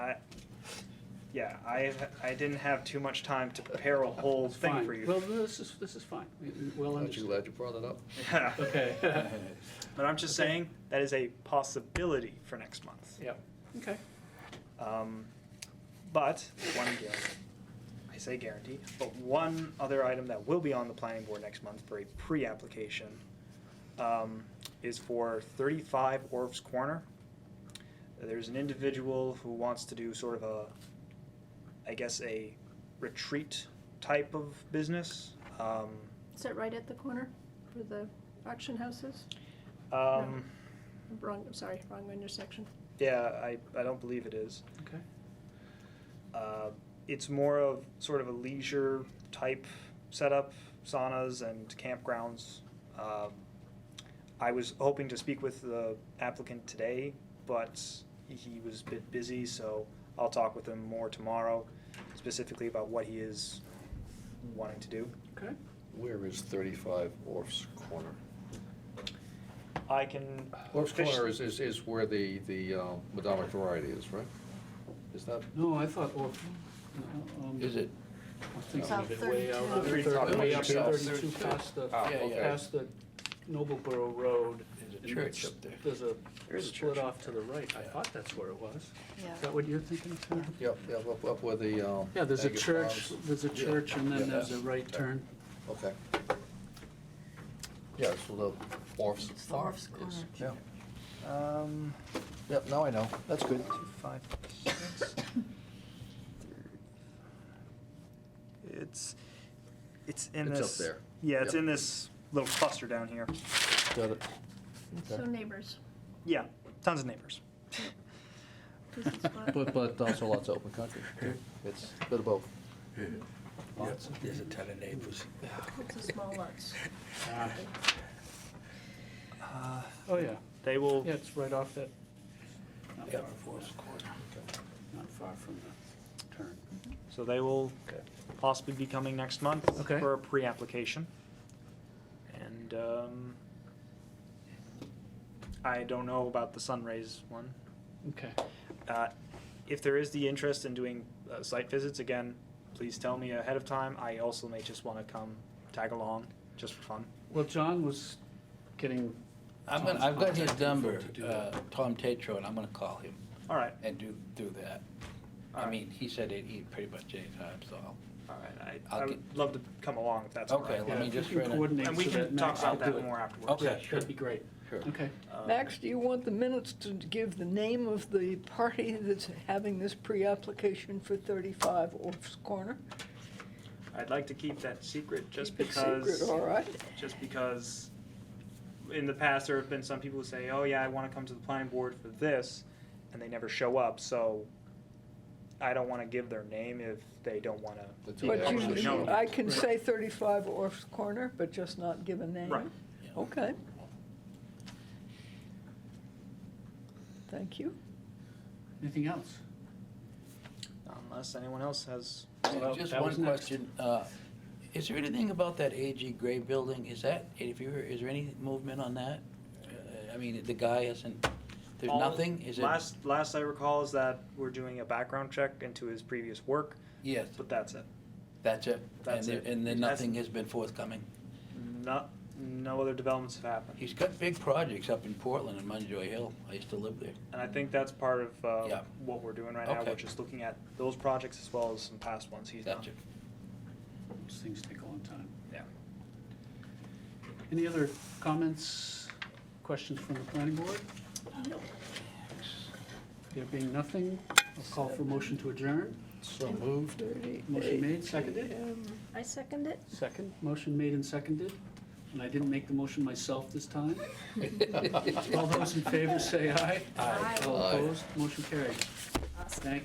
yeah, I, I didn't have too much time to prepare a whole It's thing fine. for you. Well, this is, this is fine. We- we- Well Aren't you understood. glad you brought it up? Yeah. Okay. But I'm just saying that is a possibility for next month. Yep. Okay. Um, but one guarantee, I say guarantee, but one other item that will be on the planning board next month for a pre-application um, is for 35 Orf's Corner. There's an individual who wants to do sort of a, I guess, a retreat type of business. Um, Is that right at the corner for the auction houses? um, Wrong, I'm sorry, wrong intersection. Yeah, I, I don't believe it is. Okay. Uh, it's more of sort of a leisure type setup, saunas and campgrounds. Um, I was hoping to speak with the applicant today, but he was a bit busy, so I'll talk with him more tomorrow, specifically about what he is wanting to do. Okay. Where is thirty-five Orf's Corner? I can. Orf's fish- Corner is, is, is where the, the uh, Madama Variety is, right? Is that, No, I thought, or, um. is it? I was thinking of it About way out, 32. way We're talking way up about thirty-two yourself. past the, Ah, okay. past the Nobleboro Road. There's a and church it's- up there. There's a, There's a split church up off to the right. I thought that's where it was. Yeah. Is that what you're thinking, Tom? Yep, yep, up, up where the, um. Yeah, there's a Agus church, Farms- there's a Yeah, church and yeah, then there's a that's- right turn. Okay. Yeah, so the Orf's It's the Farm Orff's is, Corner. yeah, Um, yep, now I know, that's good. two, five, six. It's, it's in It's this. up there. Yeah, it's Yep. in this little cluster down here. Got it. So Okay. neighbors. Yeah, tons of neighbors. this is what- But, but also lots of open country, it's a bit of both. Lots of- There's a ton of neighbors. It's a small lots. Ah. Oh, yeah. They will. Yeah, it's right off that, not Yeah. far from the, not far from the turn. So they will Okay. possibly be coming next month Okay. for a pre-application. And um, I don't know about the Sunrays one. Okay. Uh, if there is the interest in doing uh, site visits again, please tell me ahead of time. I also may just want to come tag along just for fun. Well, John was getting, I'm gonna, I've got his number, uh, Tom Tetro, and I'm gonna call him All right, and do, do that. I Alright. mean, he said he'd eat pretty much any time, so. I'll- all right. I, I'll I get- would love to come along if that's all Okay, right. let yeah, me if you just can try to- coordinate And we so can that talk Max- about I'll do that it. more afterwards. Okay. Yeah, that'd be great. Sure. Okay. Um, Max, do you want the minutes to give the name of the party that's having this pre-application for 35 Orf's Corner? I'd like to keep that secret just Keep it because. secret, All right. just because in the past there have been some people who say, "Oh yeah, I want to come to the planning board for this," and they never show up. So I don't want to give their name if they don't want to. That's be what But actually publicly you, showed. known. I can say 35 Orf's Corner, but just not give a name? Right. Yeah. Okay. Thank you. Anything else? Unless anyone else has. Well, Just that was one next. question, uh, is there anything about that AG Gray building, is that, if you, is there any movement on that? Uh, I mean, the guy hasn't, there's All- nothing, is it? Last last I recall is that we're doing a background check into his previous work, Yes, but that's it. that's it, and That's there, it. and then That's- nothing has been forthcoming? Not no other developments have happened, He's got big projects up in Portland and Munjoy Hill. I used to live there. and I think that's part of uh, Yeah. what we're doing right now. Okay. We're just looking at those projects as well as some past ones he's Gotcha. done. These things take a long time. Yeah. Any other comments, questions from the planning board? There being nothing, I'll call for motion to adjourn. So moved. 38 Motion made, seconded? AM. Um, I second it. Second, motion made and seconded, and I didn't make the motion myself this time. All those in favor say aye. Aye. All Aye. opposed, motion carried. Awesome. Thank